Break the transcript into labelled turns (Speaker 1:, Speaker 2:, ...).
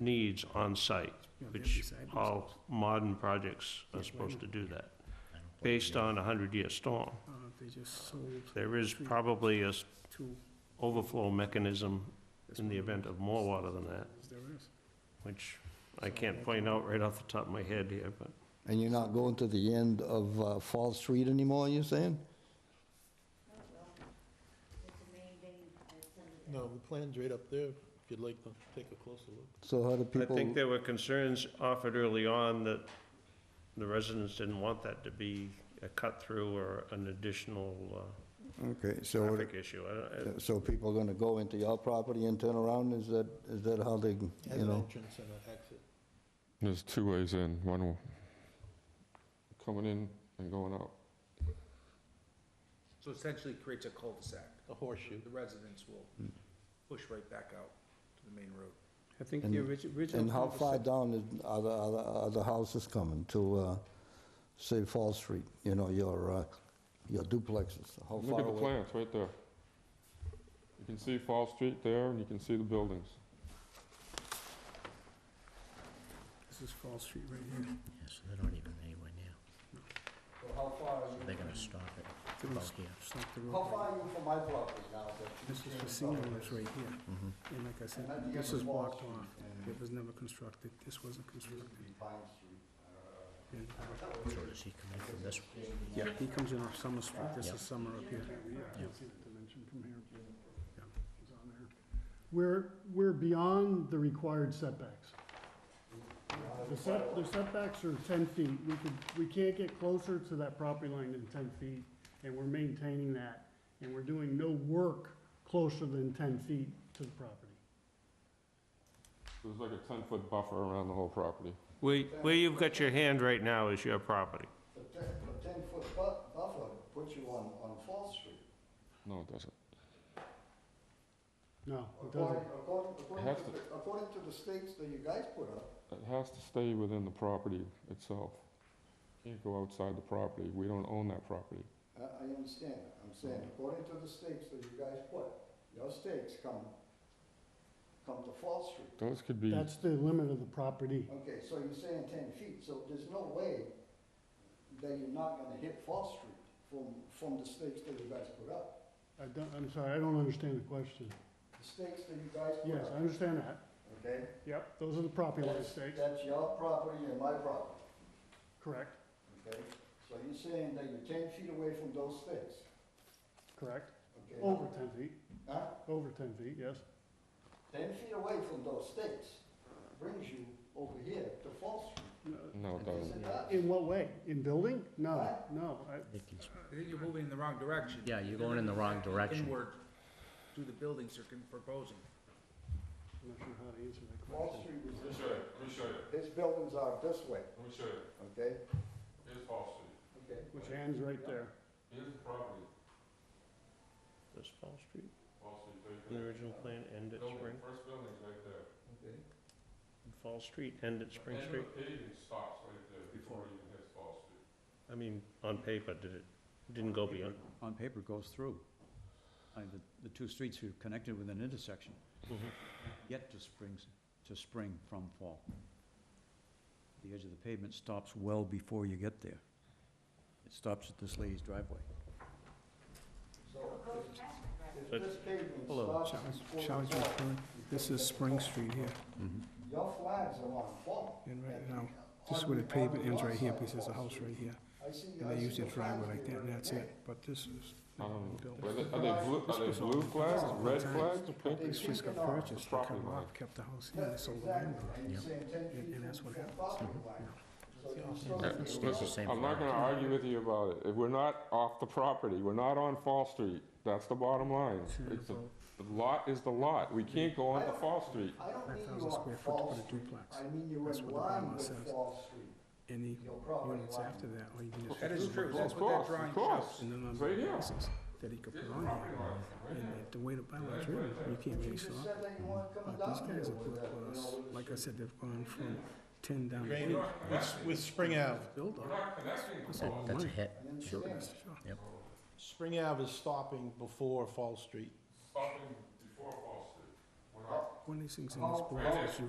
Speaker 1: needs on site,
Speaker 2: You know, they have
Speaker 1: which
Speaker 2: these side by
Speaker 1: all modern projects
Speaker 2: Yeah, why
Speaker 1: are supposed
Speaker 2: not?
Speaker 1: to do that, based on a hundred-year storm.
Speaker 2: sides. Uh, They just sold
Speaker 1: There is probably a s-
Speaker 2: two.
Speaker 1: overflow mechanism
Speaker 2: That's
Speaker 1: in the
Speaker 2: one
Speaker 1: event of more water than that,
Speaker 2: those There is.
Speaker 1: which I can't point out right off the top of my head here, but
Speaker 3: And you're not going to the end of uh, Fall Street anymore, you're saying?
Speaker 4: No, the plan's right up there, if you'd like to take a closer look.
Speaker 3: So how do
Speaker 1: I
Speaker 3: people,
Speaker 1: think there were concerns offered early on that the residents didn't want that to be a cut-through or an additional
Speaker 3: okay,
Speaker 1: uh,
Speaker 3: so,
Speaker 1: traffic issue. I don't- I-
Speaker 3: so people are gonna go into your property and turn around, is that, is that how they, you
Speaker 4: Has an
Speaker 3: know?
Speaker 4: entrance and an exit.
Speaker 5: There's two ways in, one w- coming in and going out.
Speaker 6: So essentially it creates a cul-de-sac.
Speaker 4: A horseshoe.
Speaker 6: The residents will
Speaker 7: Hmm.
Speaker 6: push right back out to the main road.
Speaker 2: I think
Speaker 3: And-
Speaker 2: the orig- original.
Speaker 3: And how far
Speaker 2: cul-de-sac-
Speaker 3: down is, are the, are the, are the houses coming to, uh, say, Fall Street? You know, your, uh, your duplexes, how
Speaker 5: Look
Speaker 3: Oh, far
Speaker 5: at the
Speaker 3: away?
Speaker 5: plan, it's right there. You can see Fall Street there, and you can see the buildings.
Speaker 2: This is Fall Street right here.
Speaker 7: Yeah, so they're not even anywhere near.
Speaker 3: So how far are
Speaker 7: They're gonna stop it.
Speaker 2: They're gonna
Speaker 7: About here.
Speaker 2: stop the
Speaker 3: How
Speaker 2: road.
Speaker 3: far
Speaker 2: right-
Speaker 3: are you from my property now? that you
Speaker 2: This is
Speaker 3: can't
Speaker 2: for senior
Speaker 3: tell?
Speaker 2: rooms right here.
Speaker 3: Mm-hmm.
Speaker 2: And like I
Speaker 3: And at the
Speaker 2: said,
Speaker 3: end
Speaker 2: this
Speaker 3: of
Speaker 2: is
Speaker 3: Wall
Speaker 2: blocked
Speaker 3: Street
Speaker 2: off.
Speaker 3: and-
Speaker 2: It was never constructed. This wasn't constructed.
Speaker 3: Pine Street.
Speaker 2: And, uh,
Speaker 7: So does he come in from this way?
Speaker 2: He comes in off Summer Street. This
Speaker 7: Yeah.
Speaker 2: is Summer up here.
Speaker 8: We're, we're beyond the required setbacks. The set, the setbacks are ten feet. We could, we can't get closer to that property line than ten feet, and we're maintaining that. And we're doing no work closer than ten feet to the property.
Speaker 5: There's like a 10-foot buffer around the whole property.
Speaker 1: Where where you've got your hand right now is your property.
Speaker 3: The ten, the ten-foot bu- buffer puts you on, on Fall Street.
Speaker 5: No, it doesn't.
Speaker 8: No, it
Speaker 3: According,
Speaker 8: doesn't.
Speaker 3: according, according
Speaker 5: has
Speaker 3: to,
Speaker 5: to.
Speaker 3: the- according to the states that you guys put up,
Speaker 5: It has to stay within the property itself. Can't go outside the property, we don't own that property.
Speaker 3: I, I understand, that. I'm saying,
Speaker 8: Mm-hmm.
Speaker 3: according to the states that you guys put, your states come, come to Fall Street.
Speaker 5: Those could be,
Speaker 8: That's the limit of the property.
Speaker 3: Okay, so you're saying ten feet, so there's no way that you're not gonna hit Fall Street from, from the stakes that you guys put up.
Speaker 8: I don't, I'm sorry, I don't understand the question.
Speaker 3: The stakes that you guys put
Speaker 8: Yes, I
Speaker 3: up,
Speaker 8: understand that.
Speaker 3: okay?
Speaker 8: Yep, those are the property line
Speaker 3: That's-
Speaker 8: stakes,
Speaker 3: That's your property and my property,
Speaker 8: correct,
Speaker 3: okay? So you're saying that you're ten feet away from those stakes,
Speaker 8: correct.
Speaker 3: okay?
Speaker 8: Over ten feet,
Speaker 3: Huh?
Speaker 8: over ten feet, yes.
Speaker 3: Ten feet away from those stakes brings you over here to Fall Street.
Speaker 8: No,
Speaker 5: no, it
Speaker 3: Is it
Speaker 5: doesn't.
Speaker 3: not?
Speaker 8: In what way? In building? No,
Speaker 3: What?
Speaker 8: no. I-
Speaker 7: They can s-
Speaker 6: I think you're moving in the wrong direction.
Speaker 7: Yeah, you're going in the wrong direction.
Speaker 6: Inward to the buildings you're proposing.
Speaker 8: I'm not sure how to answer that
Speaker 3: Fall
Speaker 8: question.
Speaker 3: Street is
Speaker 5: Let me
Speaker 3: this
Speaker 5: show you, let me show you,
Speaker 3: His buildings are this way,
Speaker 5: let me show you.
Speaker 3: okay?
Speaker 5: Here's Fall Street,
Speaker 3: Okay.
Speaker 8: Which ends right there.
Speaker 5: here's the property,
Speaker 1: Does Fall Street,
Speaker 5: Fall Street
Speaker 1: in the original plan, end at Spring?
Speaker 5: first building's right there.
Speaker 1: Fall Street, end at Spring Street?
Speaker 5: paving stops right there
Speaker 2: before
Speaker 5: you even hit Fall Street.
Speaker 1: I mean, on paper, did it, didn't go beyond?
Speaker 9: on paper goes through. I mean, the, the two streets are connected with an intersection,
Speaker 7: Mm-hmm.
Speaker 9: yet to springs, to spring from fall. The edge of the pavement stops well before you get there. It stops at this lady's driveway.
Speaker 3: So if-
Speaker 1: But-
Speaker 3: if this pavement
Speaker 1: Hello.
Speaker 3: starts
Speaker 2: Showers-
Speaker 3: before the
Speaker 2: Showers
Speaker 3: wall,
Speaker 2: referring, this is Spring Street here.
Speaker 3: mm-hmm. Your flags are on fall.
Speaker 2: And right now, this is where the pavement ends right here, because there's a house right here.
Speaker 3: I see,
Speaker 2: And
Speaker 3: I
Speaker 2: they
Speaker 3: see
Speaker 2: use their
Speaker 3: the flags
Speaker 2: driveway like
Speaker 3: there
Speaker 2: that, and that's it.
Speaker 3: today.
Speaker 2: But this is.
Speaker 5: I
Speaker 6: Um,
Speaker 5: don't
Speaker 2: built.
Speaker 5: know. Are they, are they blue, are they blue flags, red flags, pink?
Speaker 2: It's just got purchased, they cut them off, kept the house here, they
Speaker 3: Yes,
Speaker 2: sold the
Speaker 3: exactly.
Speaker 2: land.
Speaker 3: And you're saying ten feet
Speaker 2: And- and that's
Speaker 3: from
Speaker 2: what
Speaker 3: the
Speaker 2: happens.
Speaker 3: property line. So you're still
Speaker 5: Uh,
Speaker 3: gonna be
Speaker 7: Stays the
Speaker 3: allowed-
Speaker 7: same
Speaker 5: I'm not gonna
Speaker 7: flag.
Speaker 5: argue with you about it. If We're not off the property. We're not on Fall Street. That's the bottom line. It's the the lot is the lot. We can't go onto Fall Street.
Speaker 3: I don't need
Speaker 2: 5,000
Speaker 3: you on
Speaker 2: square foot to
Speaker 3: Fall
Speaker 2: put a
Speaker 3: Street.
Speaker 2: duplex.
Speaker 3: I mean you
Speaker 2: That's
Speaker 3: in
Speaker 2: what the
Speaker 3: line
Speaker 2: bylaw
Speaker 3: with
Speaker 2: says.
Speaker 3: Fall Street,
Speaker 2: Any
Speaker 3: your property
Speaker 2: units
Speaker 3: line.
Speaker 2: after that, or you can just.
Speaker 6: That is true,
Speaker 5: Of
Speaker 6: that's what that
Speaker 5: course,
Speaker 6: drawing
Speaker 5: of
Speaker 6: shows.
Speaker 5: course.
Speaker 2: And then on
Speaker 5: It's right here.
Speaker 2: places that he could put on here. And the- the way the bylaws written, you can't
Speaker 3: You
Speaker 2: really
Speaker 3: just
Speaker 2: stop.
Speaker 3: said that you weren't coming
Speaker 2: But these
Speaker 3: down here
Speaker 2: guys have
Speaker 3: with
Speaker 2: put
Speaker 3: that, you
Speaker 2: us,
Speaker 3: know, with
Speaker 2: like I
Speaker 3: this-
Speaker 2: said, they've gone from ten down to eight.
Speaker 4: With Spring Ave,
Speaker 2: Build up. That's all
Speaker 7: That's a
Speaker 2: money.
Speaker 7: hit.
Speaker 3: I
Speaker 7: Sure.
Speaker 3: understand.
Speaker 2: Sure.
Speaker 4: Spring Ave is stopping before Fall Street.
Speaker 5: Stopping before Fall Street.
Speaker 2: When these things in this board, you